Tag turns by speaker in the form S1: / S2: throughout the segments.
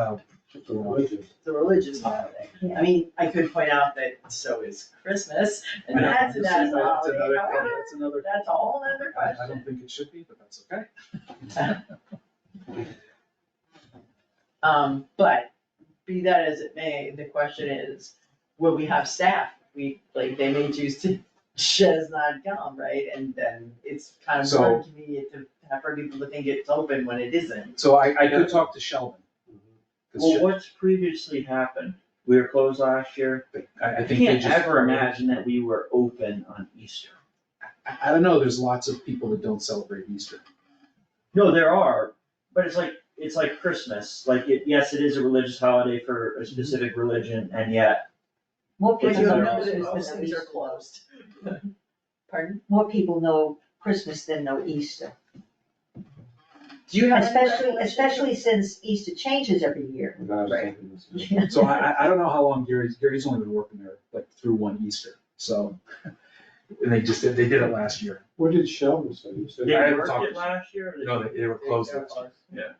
S1: Oh,
S2: It's religious.
S3: the religious holiday. I mean, I could point out that so is Christmas, and that's
S1: This is-
S3: another
S1: that's
S3: holiday,
S1: another-
S3: however,
S1: That's another,
S3: that's a whole other
S1: I I
S3: question.
S1: don't think it should be, but that's okay.
S3: Um, but be that as it may, the question is, will we have staff? We, like, they may choose to just not come, right? And then it's kind of
S1: So-
S3: hard to me to have for people to think it's open when it isn't.
S1: So I, I could talk to Sheldon. 'cause
S4: Well,
S1: Shel-
S4: what's previously happened, we were closed last year,
S1: I, I
S4: I
S1: think they
S4: can't
S1: just.
S4: ever imagine that we were open on Easter.
S1: I, I don't know, there's lots of people that don't celebrate Easter.
S4: No, there are, but it's like, it's like Christmas, like, it, yes, it is a religious holiday for
S1: Mm-hmm.
S4: a specific religion, and yet,
S5: More
S4: But
S3: But
S4: you
S5: people
S3: you'll
S4: don't
S5: know
S3: know
S4: know
S3: that
S5: Christmas
S3: those
S5: than
S3: things are
S5: Easter.
S3: closed. Pardon?
S5: More people know Christmas than know Easter,
S3: Do you have? any
S5: especially,
S3: recollection?
S5: especially since Easter changes every year.
S2: And I was
S3: Right.
S2: thinking this is-
S1: So I, I, I don't know how long Gary's, Gary's only been working there, like through one Easter, so. And they just, did they did it last year.
S2: What did Sheldon say? He said-
S4: they
S1: haven't
S4: worked
S1: talked
S4: it
S1: to-
S4: last year, or they-
S1: No, they, they were closed last year.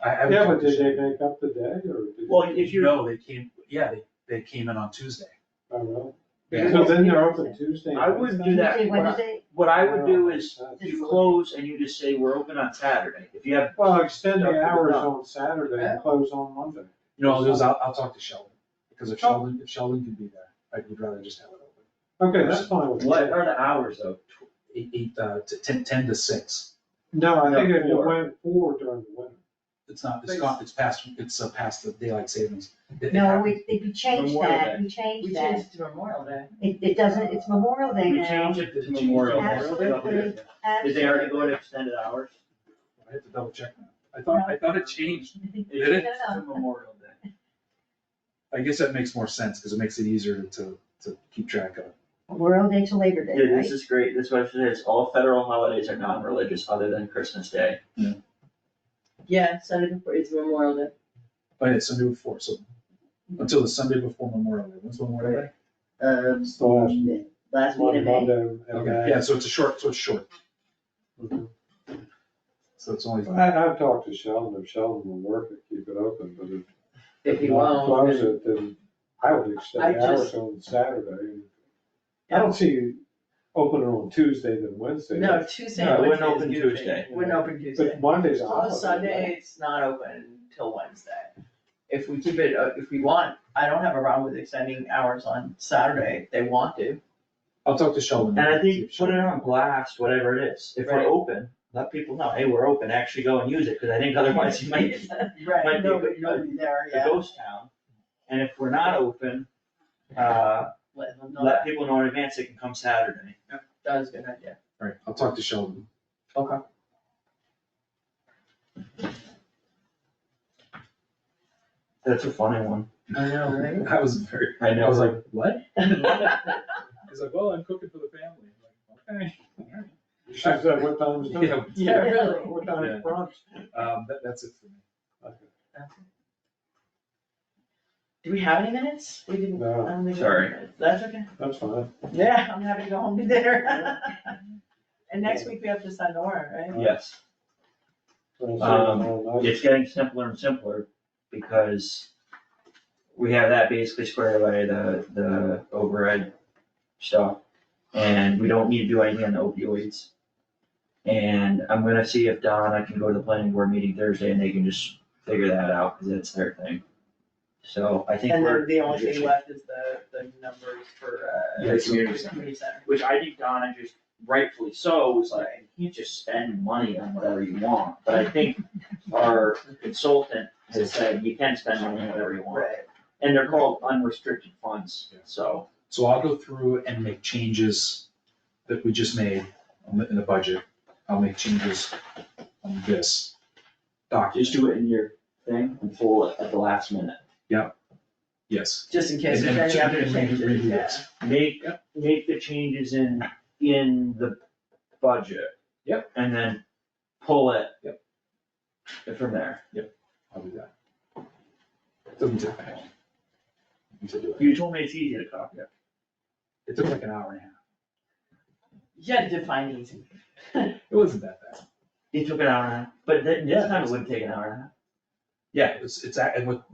S1: I- I haven't
S2: Yeah,
S1: talked
S2: but
S1: to
S2: did they
S1: Sheldon.
S2: make up the day or? did-
S4: Well, if you,
S1: No, they came, yeah, they, they came in on Tuesday.
S2: I don't know.
S1: Yeah.
S2: So then they're open Tuesday. and
S4: I wouldn't do that.
S5: Tuesday,
S4: What I-
S5: Wednesday,
S4: what I would do is,
S2: Saturday.
S4: you close and you just say, we're open on Saturday, if you have.
S2: Well, extend
S4: Stuff to
S2: the
S4: the
S2: hours
S4: dog.
S2: on Saturday and close on Monday.
S1: You know, there's- I'll, I'll talk to Sheldon, because if Sheldon, if Sheldon can be there, I would rather just have it open.
S2: Okay, that's fine with me.
S4: What are the hours though?
S1: Eight, eight, uh, to ten, ten to six,
S2: No, I think
S4: No,
S2: if it
S4: four.
S2: went four during the winter.
S1: it's not, it's gone, it's past, it's uh, past the daylight savings. It- it
S5: no,
S1: happened.
S5: we, we changed
S4: Memorial
S5: that,
S4: Day.
S5: we
S3: We
S5: changed that.
S3: changed to Memorial Day.
S5: It, it doesn't, it's Memorial Day
S4: You
S5: now.
S4: change it to Memorial Day.
S5: Absolutely.
S4: Did they already go to extended hours?
S1: I have to double check now. I thought, I thought it changed.
S5: Absolutely.
S1: Did it?
S4: It's to Memorial Day.
S1: I guess that makes more sense, because it makes it easier to, to keep track of.
S5: Memorial Day to Labor Day,
S4: Yeah,
S5: right?
S4: this is great, this website says all federal holidays are non-religious other than Christmas Day.
S3: Yeah, Sunday before, it's Memorial Day.
S1: Oh, yeah, Sunday before, so, until the Sunday before Memorial Day, when's Memorial Day?
S3: Um,
S2: It's the last
S3: last meeting of May.
S2: Monday, Monday. and
S1: Okay, yeah, so it's a short, so it's short,
S2: Mhm.
S1: so it's only,
S2: I, I've talked to Sheldon, if Sheldon will work it, keep it open, but if.
S3: If
S2: if
S3: you
S2: not
S3: won't,
S2: Close it, then I would extend
S3: I
S2: the hours
S3: just-
S2: on Saturday. I don't see you opening on Tuesday than Wednesday.
S3: No, Tuesday,
S4: No, it
S3: Wednesday
S4: wouldn't
S3: is
S4: open
S3: good for me.
S4: Tuesday.
S3: Wouldn't open Tuesday.
S2: But Monday's a holiday.
S3: Close Sunday, it's not open till Wednesday. If we keep it, uh, if we want, I don't have a problem with extending hours on Saturday if they want to.
S1: I'll talk to Sheldon.
S4: And I think,
S1: Mm-hmm.
S4: put it on blast, whatever it is, if
S3: Right.
S4: we're open, let people know, hey, we're open, actually go and use it, cause I think otherwise you might get Might
S3: Right,
S4: be
S3: no,
S4: a
S3: but
S4: good-
S3: you'll be there,
S4: a
S3: yeah.
S4: ghost town. And if we're not open, uh,
S3: Let them know that,
S4: let people know in advance they can come Saturday.
S3: that was a good idea.
S1: All right, I'll talk to Sheldon.
S3: Okay.
S4: That's a funny one.
S3: I know, right?
S1: I was very,
S4: I
S1: I was
S4: know,
S1: like, what? He's like, well, I'm cooking for the family. I'm like, okay.
S2: You should say what time is dinner.
S1: Yeah,
S3: Yeah, really.
S2: What time
S1: Yeah.
S2: is brunch?
S1: Um, that, that's it for me.
S3: Do we have any minutes? We didn't, I
S2: No,
S3: don't think. we have
S4: Sorry.
S3: minutes. That's okay.
S2: that's fine.
S3: Yeah, I'm happy to go home to dinner. And next week we have to sign the warrant, right?
S4: yes.
S2: Well,
S4: Um,
S2: so, uh,
S4: it's getting simpler and simpler because we have that basically squared away, the, the override stuff. And we don't need to do anything on the opioids. And I'm gonna see if Don, I can go to the planning board meeting Thursday and they can just figure that out, cause that's their thing. So I think
S3: And
S4: we're.
S3: then the only thing left is the, the numbers for, uh.
S4: Yeah, community center.
S3: community center.
S4: Which I think Donna just rightfully so was like,
S3: Right.
S4: you just spend money on whatever you want, but I think our consultant has said you can spend money on whatever you want.
S3: Right.
S4: And they're called unrestricted funds,
S1: Yeah.
S4: so.
S1: So I'll go through and make changes that we just made on the- in the budget. I'll make changes on this document.
S4: Just do it in your thing and pull it at the last minute.
S1: Yes.
S3: Just in case
S1: And-
S3: there's
S1: and
S3: any other
S1: change- and re-
S3: changes,
S1: redo
S3: yeah.
S1: this.
S4: Make,
S1: Yep.
S4: make the changes in, in the budget.
S1: Yep.
S4: And then pull it.
S1: Yep.
S4: From there.
S1: I'll do that. Doesn't take that long. To do it.
S4: You told me it's easy to copy.
S1: It took like an hour and a half.
S3: You had to define easy.
S1: It wasn't that bad.
S4: It took an hour and a half, but then this time it would take an hour and a half. Yeah.
S1: It's, it's, a- and with,